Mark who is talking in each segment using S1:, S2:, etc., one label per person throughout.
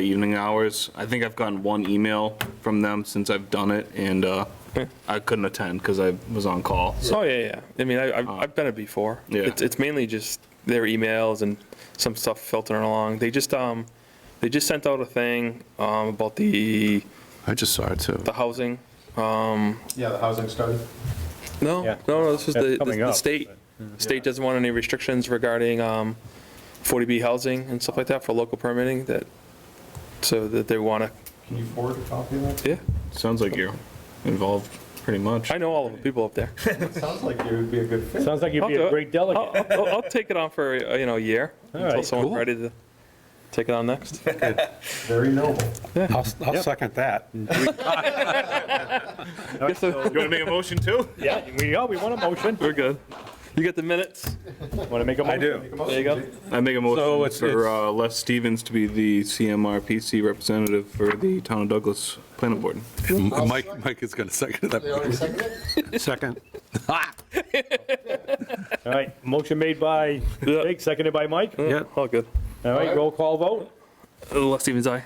S1: evening hours. I think I've gotten one email from them since I've done it, and uh, I couldn't attend because I was on call. So
S2: Oh, yeah, yeah. I mean, I, I've,
S3: Uh,
S2: I've done it before.
S1: Yeah.
S2: It's, it's mainly just their emails and some stuff filtering along. They just, um, they just sent out a thing, um, about the,
S4: I just saw it too.
S2: the housing.
S5: Yeah, the housing study.
S2: No,
S3: Yeah.
S2: no, no, this was
S3: That's
S2: the, the-
S3: coming
S2: the
S3: up,
S2: state, Mm-hmm. state doesn't want any restrictions regarding, um, 40B housing and stuff like that for local permitting that, so that they wanna,
S5: Can you forward a copy of that?
S2: yeah.
S1: sounds like you're involved pretty much.
S2: I know all of the people up there.
S5: It sounds like you would be a good fit.
S3: Sounds like you'd be
S2: I'll do
S3: a
S2: it.
S3: great
S2: I'll,
S3: delegate.
S2: I'll, I'll take it on for, uh, you know, a year
S3: All
S2: until
S3: right,
S2: someone's
S3: cool.
S2: ready to take it on next.
S5: Very noble.
S6: I'll, I'll second that.
S1: You want to make a motion too?
S3: Yeah, we, oh, we want a motion.
S2: We're good. You get the minutes?
S3: Want to make a motion? I do.
S2: There you go.
S1: I make a
S6: So
S1: motion
S6: it's-
S1: for
S6: it's-
S1: uh, Les Stevens to be the CMRPC representative for the Town of Douglas Planning Board.
S4: Mike, Mike is going to second that.
S6: Second.
S3: All right, motion made by
S2: Yeah.
S3: Jake, seconded by Mike. All
S6: Yeah,
S2: All good.
S3: right, roll call vote.
S2: Les Stevens, aye.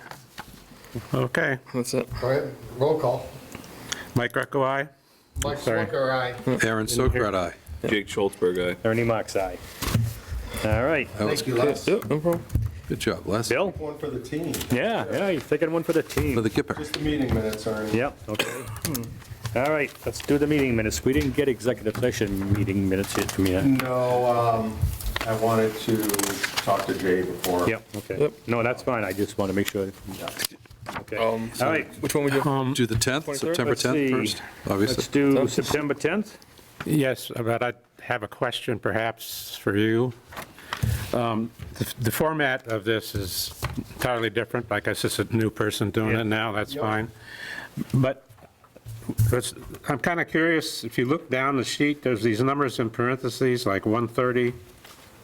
S6: okay.
S2: That's it.
S7: All right, roll call.
S6: Mike Greco, aye.
S7: Mike
S3: Sorry.
S7: Swicker, aye.
S4: Aaron Sokrat, aye.
S1: Jake Schultzberg, aye.
S3: Ernie Mac's aye. All right,
S4: That was,
S7: Thank you, Les.
S2: Yep, no problem.
S4: good job, Les.
S3: Bill?
S5: One for the team.
S3: Yeah, yeah, he's taking one for the
S4: For
S3: team.
S4: the Kipper.
S5: Just the meeting minutes are in.
S3: Yep, okay. All right, let's do the meeting minutes. We didn't get executive session meeting minutes yet from you.
S5: No, um, I wanted to talk to Jay before.
S3: Yep, okay.
S2: Yep.
S3: No, that's fine, I just want to make sure. Okay. All
S2: Um,
S3: right,
S2: Which one we do?
S4: Do the 10th,
S2: 23rd?
S4: September
S3: Let's
S4: 10th
S3: see.
S4: first,
S3: let's
S4: obviously.
S3: do September 10th.
S6: Yes, but I have a question perhaps for you. Um, The the format of this is entirely different. I guess it's a new person doing
S3: Yeah.
S6: it now, that's fine. But let's- I'm kind of curious, if you look down the sheet, there's these numbers in parentheses, like 130,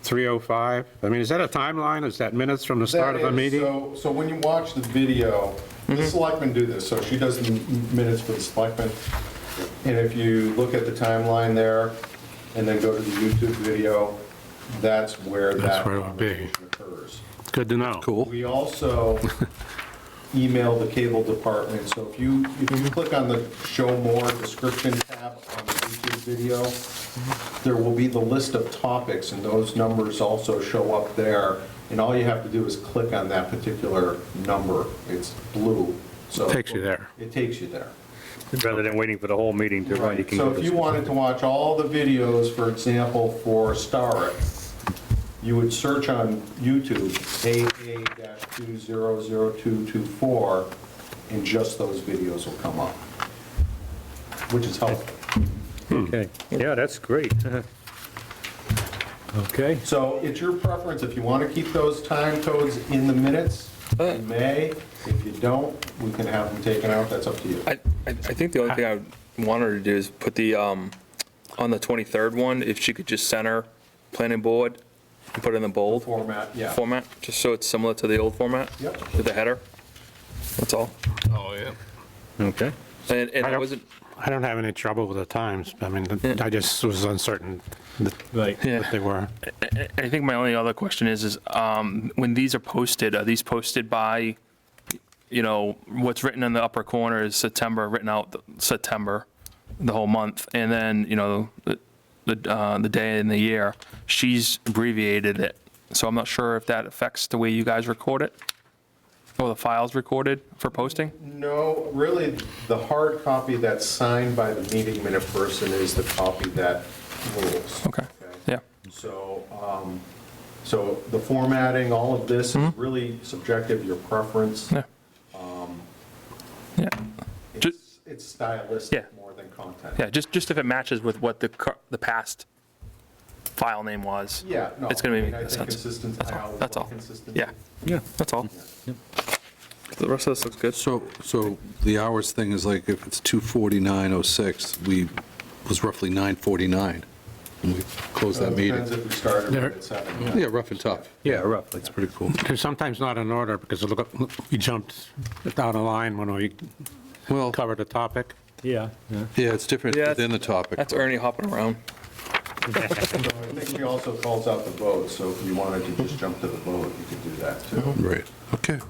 S6: 305. I mean, is that a timeline? Is that minutes from the start of the
S5: That is, uh,
S6: meeting? Mm-hmm.
S5: So, so when you watch the video, the selectmen do this, so she does the m- minutes for the selectmen. And if you look at the timeline there, and then go to the YouTube video, that's where
S6: That's
S5: that
S6: where it'll be.
S5: conversation occurs.
S6: Good to know.
S4: Cool.
S5: We also email the cable department, so if you, if
S6: Mm-hmm.
S5: you click on the show more description tab on the YouTube video,
S6: Mm-hmm.
S5: there will be the list of topics, and those numbers also show up there, and all you have to do is click on that particular number, it's blue, so.
S6: Takes you there.
S5: It takes you there.
S3: Rather than waiting for the whole meeting to run, you can.
S5: So
S3: go
S5: if
S3: to-
S5: you wanted to watch all the videos, for example, for Starrett, you would search on YouTube, AA-200224, and just those videos will come up, which is helpful.
S3: Okay, yeah, that's great. Okay,
S5: So it's your preference, if you want to keep those time codes in the minutes, you may. If you don't, we can have them taken out, that's up to you.
S2: I, I I think the only thing I would want her to do is put the, um, on the 23rd one, if she could just center planning board and put it in the bold
S5: Format, yeah.
S2: format, just so it's similar to the old format.
S5: Yep.
S2: With the header. That's all.
S1: Oh, yeah.
S3: okay.
S2: And, and I
S6: I don't-
S2: wasn't,
S6: I don't have any trouble with the times. I mean, I just was uncertain
S3: Right.
S6: that they were.
S8: I think my only other question is, is um, when these are posted, are these posted by, you know, what's written in the upper corner is September, written out th- September, the whole month, and then, you know, the, the, uh, the day and the year, she's abbreviated it. So I'm not sure if that affects the way you guys record it, or the files recorded for posting?
S5: No, really, the hard copy that's signed by the meeting minute person is the copy that rules.
S8: Okay, yeah.
S5: So, um, so the formatting, all of this is really subjective, your preference.
S8: Mm-hmm. Yeah. Yeah,
S5: It's it's
S8: Yeah.
S5: stylistic more than content.
S8: yeah, just, just if it matches with what the, cur- the past file name was.
S5: Yeah, no.
S8: It's gonna
S5: I
S8: be-
S5: mean, I
S8: that's
S5: think
S8: all.
S5: consistency,
S8: That's
S5: I
S8: all.
S5: always
S8: That's
S5: love
S8: all.
S5: consistency.
S8: Yeah, yeah, that's all.
S2: the rest of this looks good.
S4: So, so the hours thing is like, if it's 2:49:06, we, was roughly 9:49, and we closed that
S5: It Depends
S4: meeting.
S5: if we started
S6: There-
S5: at seven. yeah.
S4: Yeah, rough and tough.
S3: Yeah, roughly.
S4: That's pretty cool.
S6: They're sometimes not in order because look, we jumped down a line when we
S4: Well,
S6: covered a topic.
S3: Yeah, yeah.
S4: yeah, it's different
S2: Yeah,
S4: within the topic.
S2: That's Ernie hopping around.
S5: So I think she also calls out the vote, so if you wanted to just jump to the vote, you could do that too.
S4: Right, okay.